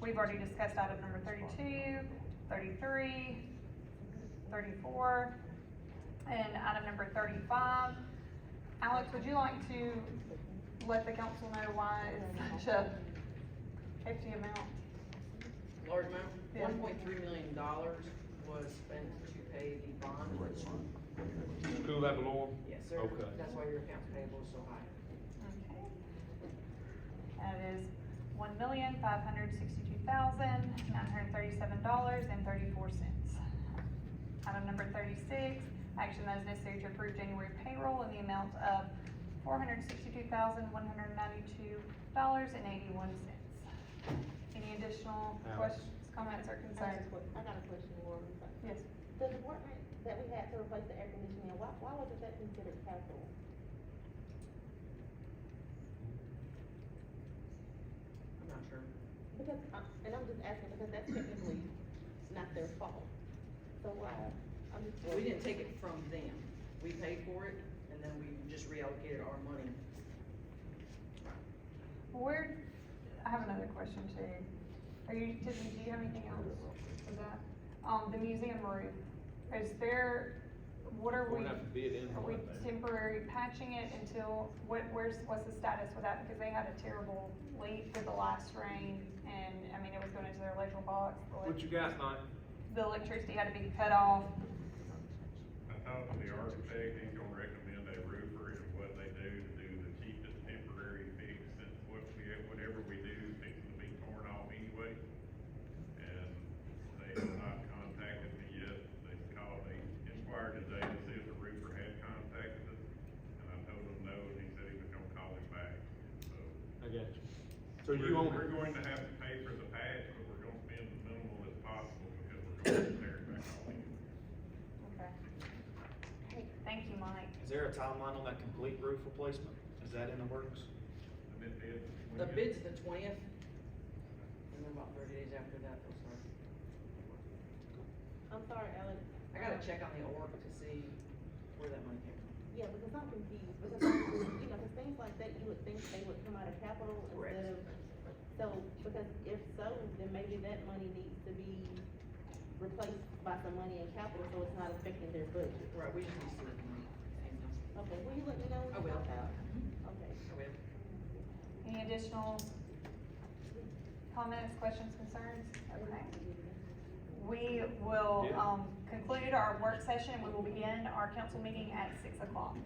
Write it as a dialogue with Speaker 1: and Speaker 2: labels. Speaker 1: We've already discussed item number 32, 33, 34, and item number thirty-five. Alex, would you like to let the council know why it's such a hefty amount?
Speaker 2: Large amount,
Speaker 1: Yeah.
Speaker 2: one point three million dollars was spent to pay the bond.
Speaker 3: School level law?
Speaker 2: Yes, sir.
Speaker 3: Okay.
Speaker 2: That's why your accounts payable is so high.
Speaker 1: Okay. That is one million, five hundred sixty-two thousand, nine hundred thirty-seven dollars and thirty-four cents. Item number thirty-six, action that is necessary to approve January payroll in the amount of four hundred sixty-two thousand, one hundred ninety-two dollars and eighty-one cents. Any additional
Speaker 3: Alex.
Speaker 1: questions, comments, or concerns?
Speaker 4: I got a que- I got a question, Laura.
Speaker 1: Yes,
Speaker 4: The department that we had to replace the air conditioning, why, why wasn't that considered capital?
Speaker 2: I'm not sure.
Speaker 4: Because, uh, and I'm just asking because that's technically not their fault. So why, I'm just.
Speaker 2: Well, we didn't take it from them. We paid for it and then we just reallocated our money.
Speaker 1: where, I have another question too. Are you, did, do you have anything else for that? Um, the museum roof, is there, what are
Speaker 3: We're
Speaker 1: we,
Speaker 3: gonna have to bid in
Speaker 1: are
Speaker 3: on
Speaker 1: we
Speaker 3: that thing.
Speaker 1: temporary patching it until, what, where's, what's the status with that? Because they had a terrible leak with the last rain and, I mean, it was going into their electrical box. the elec-
Speaker 3: What you guys think?
Speaker 1: The electricity had to be cut off.
Speaker 5: I talked to the architect, he's gonna recommend a roofer and what they do to do the cheapest temporary fix and what we, whatever we do, things will be torn off anyway. And they have not contacted me yet, they called, they inquired today to see if the roofer had contacted us. And I told him no, and he said he was gonna call him back, so.
Speaker 3: I got you. So you own
Speaker 5: We're- We're
Speaker 3: it?
Speaker 5: going to have to pay for the patch, but we're gonna spend as minimal as possible because we're gonna tear it back all anyway.
Speaker 1: Okay. Thank you, Mike.
Speaker 6: Is there a timeline on that complete roof replacement? Is that in the works?
Speaker 5: And it did.
Speaker 2: The bid's the twentieth. And then about thirty days after that, they'll start.
Speaker 4: I'm sorry, Alex. Um,
Speaker 2: I gotta check on the org to see where that money came from.
Speaker 4: Yeah, because I'm confused, because, you know, because things like that, you would think they would come out of capital
Speaker 2: Correct.
Speaker 4: instead of, so, because if so, then maybe that money needs to be replaced by some money in capital, so it's not affecting their budget.
Speaker 2: Right, we just need to see what the money came from.
Speaker 4: Okay, will you let me know? when
Speaker 2: I
Speaker 4: you
Speaker 2: will.
Speaker 4: find out? Okay.
Speaker 2: So we have
Speaker 1: Any additional comments, questions, concerns? Okay. We will,
Speaker 3: Yeah.
Speaker 1: um, conclude our work session. We will begin our council meeting at six o'clock.